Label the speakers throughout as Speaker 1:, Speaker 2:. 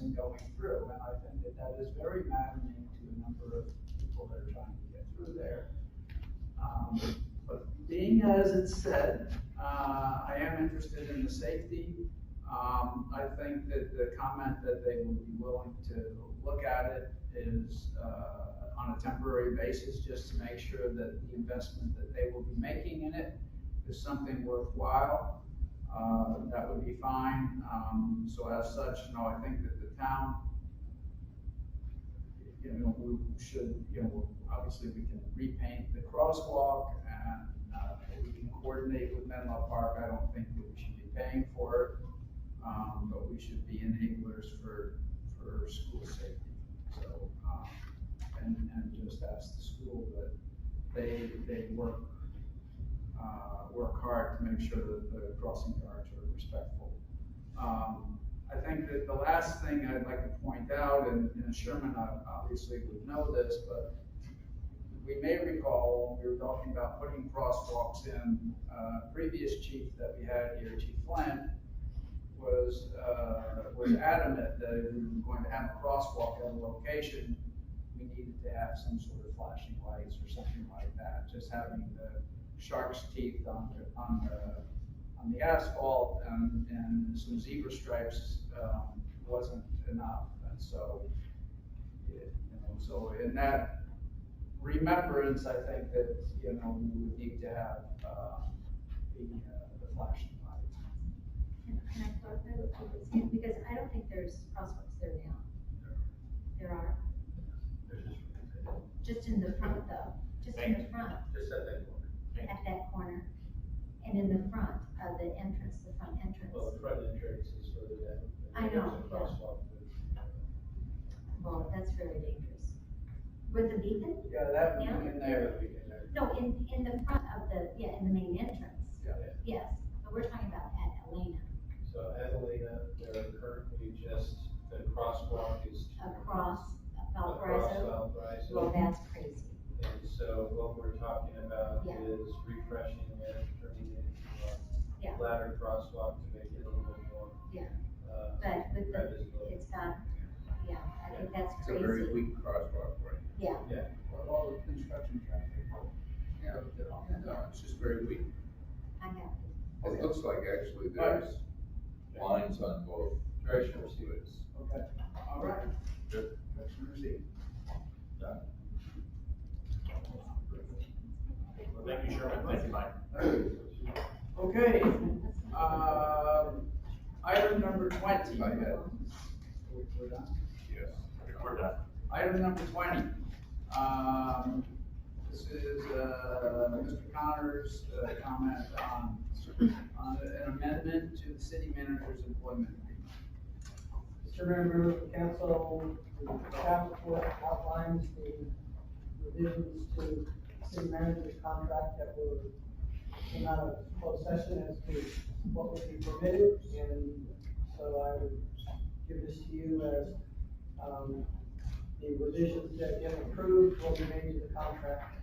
Speaker 1: going through. And I think that that is very maddening to a number of people that are trying to get through there. Um, But being as it said, uh, I am interested in the safety. Um, I think that the comment that they would be willing to look at it is, uh, on a temporary basis, just to make sure that the investment that they will be making in it is something worthwhile, uh, that would be fine. Um, so as such, you know, I think that the town, you know, we should, you know, obviously we can repaint the crosswalk and, uh, we can coordinate with Menlo Park. I don't think that we should be paying for it. Um, but we should be enablers for, for school safety. So, um, and, and just ask the school that they, they work, uh, work hard to make sure that the crossing guards are respectful. Um, I think that the last thing I'd like to point out, and and Sherman uh, obviously would know this, but we may recall, when we were talking about putting crosswalks in, uh, previous chief that we had here, Chief Flynn, was, uh, was adamant that if we were going to have a crosswalk at a location, we needed to have some sort of flashing lights or something like that, just having the shark's teeth on the, on the, on the asphalt and, and some zebra stripes, um, wasn't enough, and so, it- you know, so in that remembrance, I think that, you know, we would need to have, uh, the, uh, the flashing lights.
Speaker 2: Can can I clarify what Keith is saying? Because I don't think there's crosswalks there now. There are, just in the front though, just in the front,
Speaker 3: Just at that corner.
Speaker 2: at that corner. And in the front of the entrance, the front entrance.
Speaker 3: Well, the front entrance is further down.
Speaker 2: I know,
Speaker 3: There's a
Speaker 2: yeah.
Speaker 3: crosswalk there.
Speaker 2: Well, that's very dangerous. With the beacon?
Speaker 1: Yeah, that would be in there, that we can, uh,
Speaker 2: No, in, in the front of the, yeah, in the main entrance.
Speaker 3: Yeah.
Speaker 2: Yes, but we're talking about at Elena,
Speaker 3: So Adelina, there are currently just, the crosswalk is.
Speaker 2: across
Speaker 3: Across uh,
Speaker 2: Valparaiso.
Speaker 3: Valparaiso.
Speaker 2: Well, that's crazy.
Speaker 3: And so what we're talking about
Speaker 2: Yeah.
Speaker 3: is refreshing it, turning it into
Speaker 2: Yeah.
Speaker 3: a ladder crosswalk to make it a little bit more.
Speaker 2: Yeah.
Speaker 3: Uh,
Speaker 2: But with the,
Speaker 3: visible.
Speaker 2: it's not, yeah, I think that's
Speaker 4: It's a
Speaker 2: crazy.
Speaker 4: very weak crosswalk, right?
Speaker 2: Yeah,
Speaker 4: Well, all the construction traffic.
Speaker 1: oh,
Speaker 4: Yeah, no, it's just very weak.
Speaker 2: I have.
Speaker 4: It looks like actually there's lines on both directions to it.
Speaker 1: Okay, all right.
Speaker 4: Good.
Speaker 1: Commissioner Z.
Speaker 5: Thank you, Sherman. Thank you, Mike.
Speaker 1: Okay, um, item number twenty.
Speaker 4: I had,
Speaker 1: We're done.
Speaker 4: yes.
Speaker 5: We're done.
Speaker 1: Item number twenty, um, this is, uh, Mr. Connor's, uh, comment on, on an amendment to the city manager's employment agreement.
Speaker 6: Mr. Mayor, members of council, the staff report outlines the revisions to city manager's contract that were came out of closed session as to what would be permitted, and so I would give this to you as, um, the revisions that get approved will be made to the contract.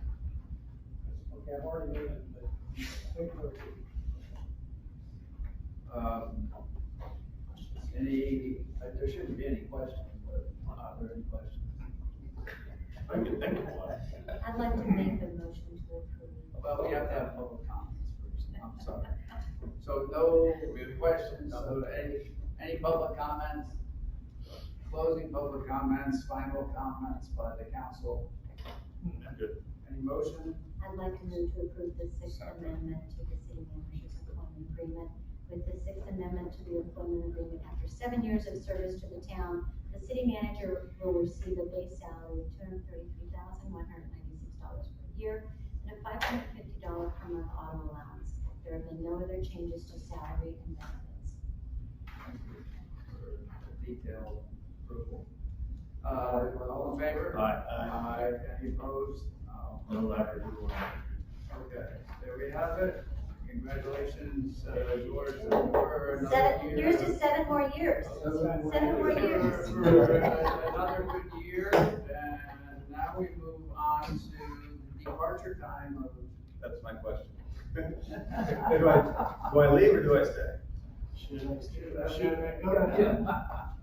Speaker 6: Okay, I've already made it, but wait for it.
Speaker 1: Um, Any, uh, there shouldn't be any questions, but are there any questions?
Speaker 5: I can think of one.
Speaker 2: I'd like to make the motion to approve.
Speaker 1: Well, we have to have public comments first, I'm sorry. So no questions, so any, any public comments? Closing public comments, final comments by the council,
Speaker 5: I'm good.
Speaker 1: any motion?
Speaker 2: I'd like to move to approve the sixth
Speaker 4: Second.
Speaker 2: amendment to the city manager's employment agreement. With the sixth amendment to the employment agreement, after seven years of service to the town, the city manager will receive a base salary of two hundred thirty-three thousand, one hundred ninety-six dollars per year and a five hundred fifty dollar per month auto allowance. There have been no other changes to salary and benefits.
Speaker 1: Thank you for Detailed approval. Uh, all in favor?
Speaker 5: Uh,
Speaker 1: Aye, any opposed? No.
Speaker 5: No ladder, we will not.
Speaker 1: Okay, there we have it, congratulations, uh, George, for another
Speaker 2: Seven,
Speaker 1: year.
Speaker 2: here's to seven more years. Seven more years.
Speaker 1: For Another good year, and now we move on to departure time of.
Speaker 3: That's my question.
Speaker 1: Go
Speaker 3: Do I leave or do I stay?
Speaker 1: Should
Speaker 6: Should I go?
Speaker 1: Yeah.